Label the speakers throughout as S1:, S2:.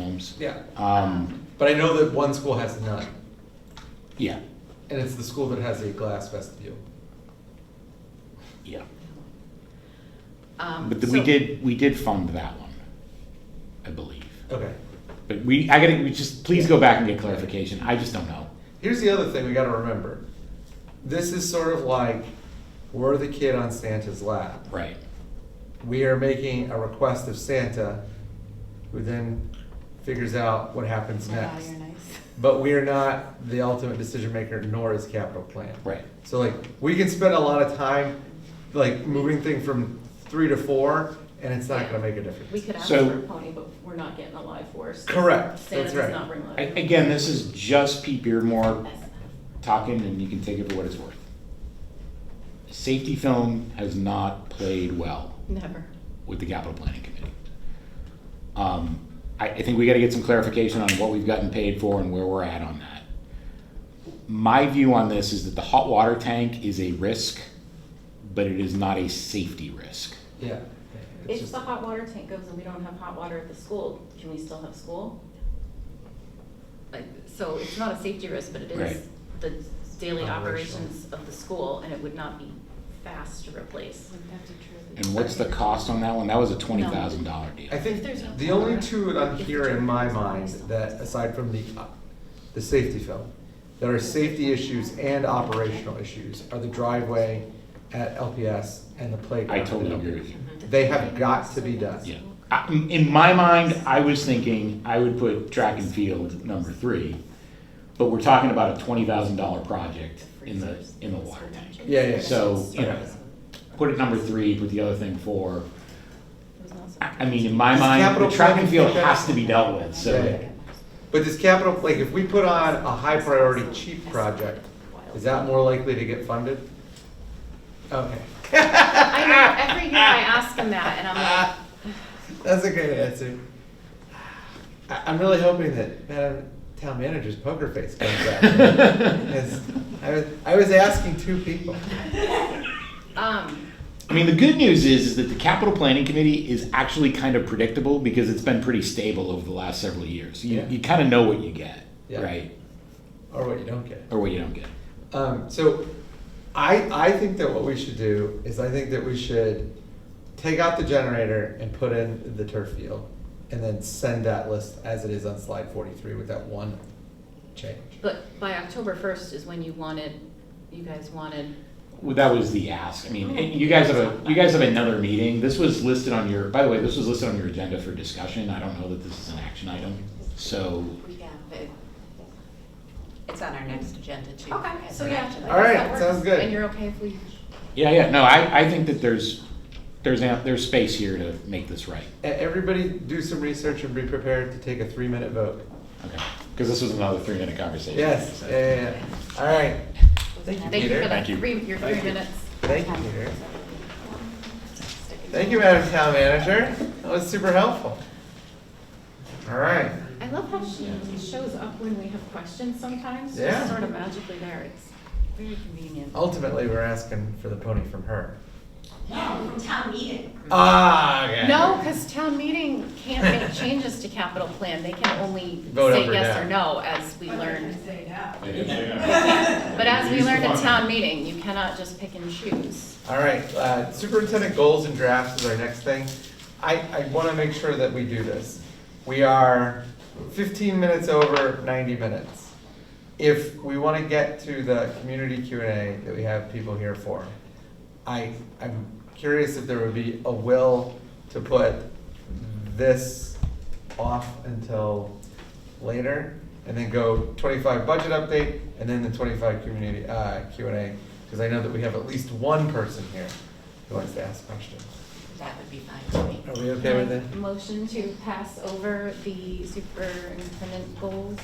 S1: names.
S2: Yeah,
S1: Um,
S2: but I know that one school has none,
S1: yeah,
S2: and it's the school that has a glass vestibule.
S1: yeah.
S3: Um,
S1: But the- we
S3: so-
S1: did, we did fund that one, I believe.
S2: Okay.
S1: But we, I gotta, we just, please go back and get clarification. I just don't know.
S2: Here's the other thing we got to remember. This is sort of like we're the kid on Santa's lap.
S1: Right.
S2: We are making a request of Santa, who then figures out what happens
S3: Wow,
S2: next.
S3: you're nice.
S2: But we are not the ultimate decision maker, nor is capital plan.
S1: Right.
S2: So like we can spend a lot of time like moving thing from three to four, and it's not going to make a difference.
S4: We could ask
S1: So-
S4: for a pony, but we're not getting a live horse.
S2: Correct,
S4: Santa
S2: that's
S4: does
S2: right.
S4: not bring live.
S1: A- Again, this is just Pete Beardmore talking, and you can take it for what it's worth. Safety film has not played well
S3: Never.
S1: with the capital planning committee. Um, I, I think we gotta get some clarification on what we've gotten paid for and where we're at on that. My view on this is that the hot water tank is a risk, but it is not a safety risk.
S2: yeah. It's
S4: If
S2: just,
S4: the hot water tank goes and we don't have hot water at the school, can we still have school?
S3: Like, so it's not a safety risk, but it
S1: Right.
S3: is the daily
S2: Operational.
S3: operations of the school, and it would not be fast to replace. Mm-hmm.
S1: And what's the cost on that one? That was a twenty thousand dollar deal.
S2: I think
S4: There's no
S2: the only
S4: color.
S2: two that I'm
S4: If
S2: here
S4: the
S2: in my
S4: turtle's on
S2: mind
S4: itself.
S2: that aside from the uh, the safety film, there are safety issues and operational issues are the driveway at LPS and the playground.
S1: I totally
S2: at
S1: agree
S2: LPS.
S1: with you.
S2: They have got to be done.
S1: Mm-hmm. Yeah. I- in- In my mind, I was thinking I would put track and field number three, but we're talking about a twenty thousand dollar project in the, in the water tank.
S2: Yeah, yeah.
S1: So, you know, put it number three, put the other thing four.
S4: It was not
S1: I
S4: something-
S1: I mean, in my
S2: Does
S1: mind,
S2: capital
S1: the track and
S2: planning
S1: field
S2: think
S1: has
S2: that-
S1: to be dealt with,
S2: Yeah,
S1: so.
S2: yeah. But does capital like if we put on a high priority cheap project, is that more likely to get funded? Okay,
S3: I know, every year I ask him that, and I'm like,
S2: that's a great answer. I, I'm really hoping that Madam Town Manager's poker face comes back. Yes, I was, I was asking two people.
S3: um,
S1: I mean, the good news is, is that the capital planning committee is actually kind of predictable because it's been pretty stable over the last several years. You,
S2: Yeah.
S1: you kind of know what you get,
S2: Yeah.
S1: right?
S2: Or what you don't get.
S1: Or what you don't get.
S2: Um, so I, I think that what we should do is I think that we should take out the generator and put in the turf field and then send that list as it is on slide 43 with that one change.
S3: but by October first is when you wanted, you guys wanted,
S1: Well, that was the ask. I mean, and you guys have a, you guys have another meeting. This was listed on your, by the way, this was listed on your agenda for discussion. I don't know that this is an action item. So,
S5: It's on our next agenda too.
S3: okay,
S5: as
S3: so
S5: an
S3: yeah.
S5: action.
S3: I
S2: All right,
S3: guess that works.
S2: sounds good.
S3: And you're okay if we,
S1: yeah, yeah, no, I, I think that there's, there's, amp- there's space here to make this right.
S2: E- Everybody do some research and be prepared to take a three minute vote.
S1: Okay, because this was another three-minute conversation.
S2: Yes, Eh.
S1: So-
S2: yeah, yeah, yeah. All right. Thank you,
S3: thank you
S2: Peter.
S3: for that,
S1: Thank you.
S3: three, your three
S2: Thank you.
S3: minutes.
S2: Thank you, Peter. Thank you, Madam Town Manager. That was super helpful. All right.
S4: I love how she shows up when we have questions sometimes,
S2: Yeah.
S4: she's sort of magically there, it's very convenient.
S2: Ultimately, we're asking for the pony from her.
S5: No, from town meeting.
S2: Ah, okay.
S3: No, because town meeting can't make changes to capital plan, they can only
S2: Vote up
S3: say
S2: or
S3: yes
S2: down.
S3: or no, as we learned.
S1: But
S3: But as we learned at town meeting, you cannot just pick and choose.
S2: All right, uh, superintendent goals and drafts is our next thing. I, I want to make sure that we do this. We are fifteen minutes over ninety minutes. If we want to get to the community Q and A that we have people here for, I, I'm curious if there would be a will to put this off until later, and then go twenty-five budget update, and then the twenty-five community, uh, Q and A, because I know that we have at least one person here who wants to ask questions.
S5: That would be fine to me.
S2: Are we okay with it?
S3: Motion to pass over the superintendent goals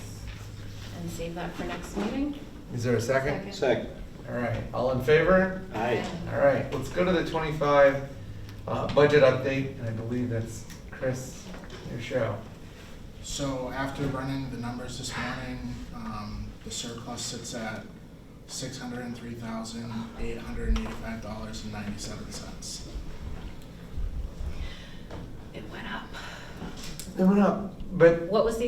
S3: and save that for next meeting.
S2: Is there a second?
S6: Second.
S2: All right, all in favor?
S6: Aye.
S2: All right, let's go to the twenty-five, uh, budget update, and I believe that's Chris, your show.
S7: So after running the numbers this morning, um, the surplus sits at six hundred and three thousand, eight hundred and eighty-five dollars and ninety-seven cents.
S3: It went up.
S2: It went up, but
S3: What was the